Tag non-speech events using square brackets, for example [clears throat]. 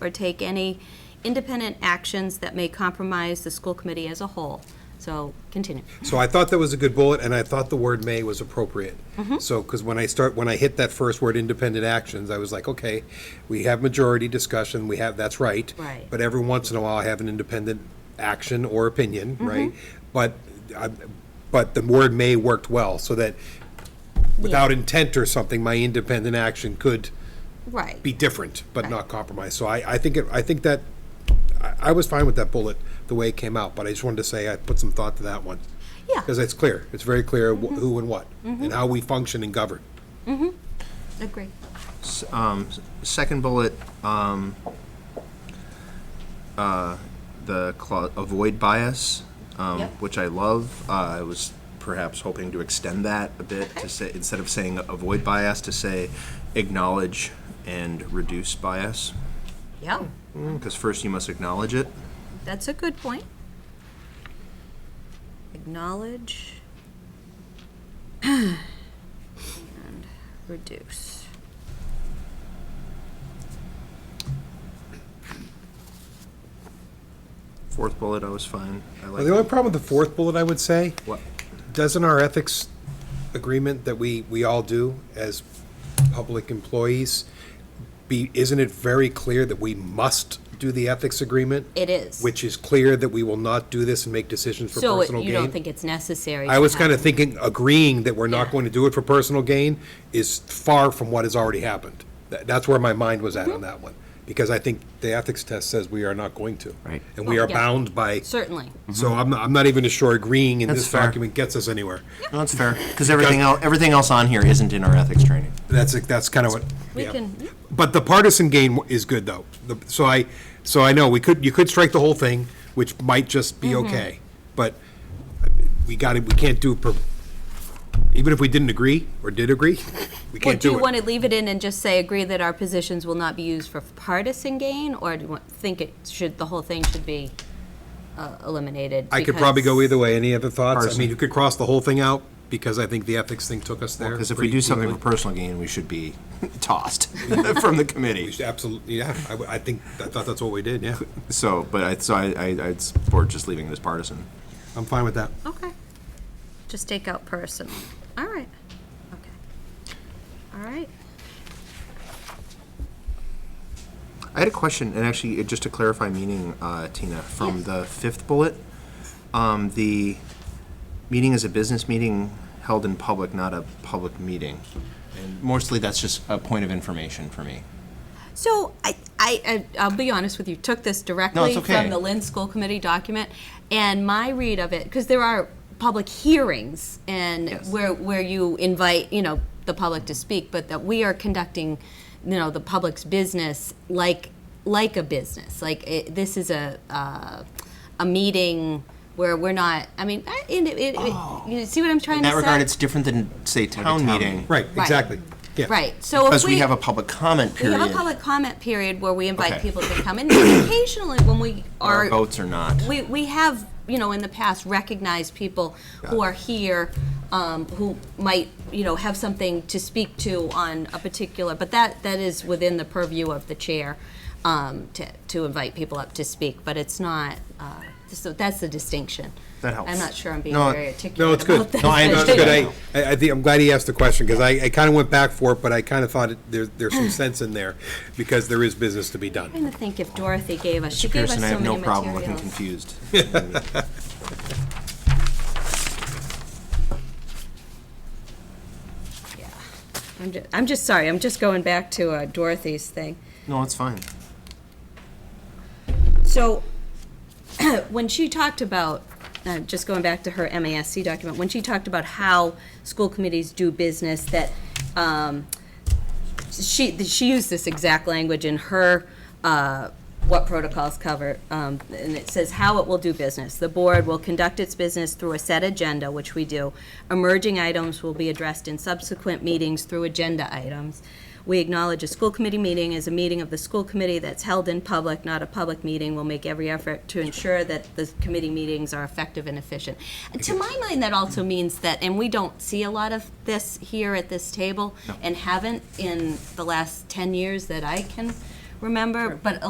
or take any independent actions that may compromise the school committee as a whole. So, continue. So I thought that was a good bullet, and I thought the word "may" was appropriate. So, because when I start, when I hit that first word, independent actions, I was like, okay, we have majority discussion, we have, that's right. Right. But every once in a while, I have an independent action or opinion, right? But, I- but the word "may" worked well, so that without intent or something, my independent action could Right. be different, but not compromise. So I, I think, it I think that, I, I was fine with that bullet, the way it came out, but I just wanted to say I put some thought to that one. Yeah. Mm-hmm. Because it's clear, it's very clear wh- who and what, and how we function and govern. Agree. Second bullet, um, uh, the cla- avoid bias, um, Yep. which I love. Uh, I was perhaps hoping to extend that a bit to say, instead of saying avoid bias, to say acknowledge and reduce bias. Yeah, Because first you must acknowledge it. that's a good point. Acknowledge and reduce. Fourth bullet, I was fine. I The only like problem with the fourth bullet, I would say, what, doesn't our ethics agreement that we, we all do as public employees be, isn't it very clear that we must do the ethics agreement? It is. Which is clear that we will not do this and make decisions for So it- personal gain? you don't think it's necessary? I to was have- kind of thinking, agreeing that we're not Yeah. going to do it for personal gain is far from what has already happened. Tha- That's where my mind was Mm-hmm. at on that one, because I think the ethics test says we are not going to. Right. And we are yeah. bound by, Certainly. so I'm, not- I'm not even sure agreeing in Mm-hmm. That's this fair. document gets us anywhere. no, that's fair. Because everything else, everything else on here isn't in our ethics training. That's, it- that's kind of what, We yeah. can- But the partisan gain is good, though. The- So I, so I know, we could, you could strike the whole thing, which might just be Mm-hmm. okay. But we got it, we can't do, per- even if we didn't agree, or did agree, [laughs] we Well, can't do do you it. want to leave it in and just say, agree that our positions will not be used for partisan gain? Or do you want- think it should, the whole thing should be uh, eliminated? I could probably go because- either way. Any other thoughts? I Person. mean, you could cross the whole thing out, because I think the ethics thing took us there. Because if we pretty do something for deeply. personal gain, we should be [laughs] tossed from the committee. Absolutely, yeah, I, w- I think, I thought that's what we did, [laughs] yeah. So, but I, so I, I, I'd support just leaving this partisan. I'm fine with that. Okay. Just take out personal. All right. Okay. All right. I had a question, and actually, it, just to clarify meaning, uh, Tina, from the fifth bullet, um, the meeting is a business meeting held in public, not a public meeting. And mostly, that's just a point of information for me. So I, I, I- I'll be honest with you. Took this directly okay. from the Lynn School Committee document, and my read of it, because there are public hearings and Yes. where where you invite you know the public to speak, but that we are conducting, you know, the public's business like like a business. Like it, this is a uh, a meeting where we're not. I mean, I- it, it, it- you see what I'm trying Oh. In to that regard, say? it's different than, say, town meeting. Right, exactly. Yeah. right. So Because if we have a public comment we period. have a public comment period where we invite Okay. people to come in. Occasionally, when we Our are, votes are not. we, we have, you know, in the past recognized people who Got it. are here, um, who might, you know, have something to speak to on a particular, but that, that is within the purview of the chair, um, to, to invite people up to speak, but it's not, uh, so that's the distinction. That helps. I'm not sure I'm being No, very no, articulate No, it's good. about this, No, I but- understood. [laughs] I, I, I think, I'm glad he asked the question, because I, I kind of went back for it, but I kind of thought it- there, there's some sense in there, because there is business to be I'm done. trying to think if Dorothy gave us, she gave us so Pearson, many I have no materials. problem looking confused. [laughs] Yeah. I'm just, I'm just sorry, I'm just going back to uh, Dorothy's thing. No, it's fine. So, [clears throat] when she talked about, uh, just going back to her MASC document, when she talked about how school committees do business, that, um, she, that she used this exact language in her, uh, what protocols cover, um, and it says how it will do business. The board will conduct its business through a set agenda, which we do. Emerging items will be addressed in subsequent meetings through agenda items. We acknowledge a school committee meeting is a meeting of the school committee that's held in public, not a public meeting. We'll make every effort to ensure that the committee meetings are effective and efficient. And to my mind, that also means that, and we don't see a lot of this here at this table, and haven't in the last 10 years that I can remember, but a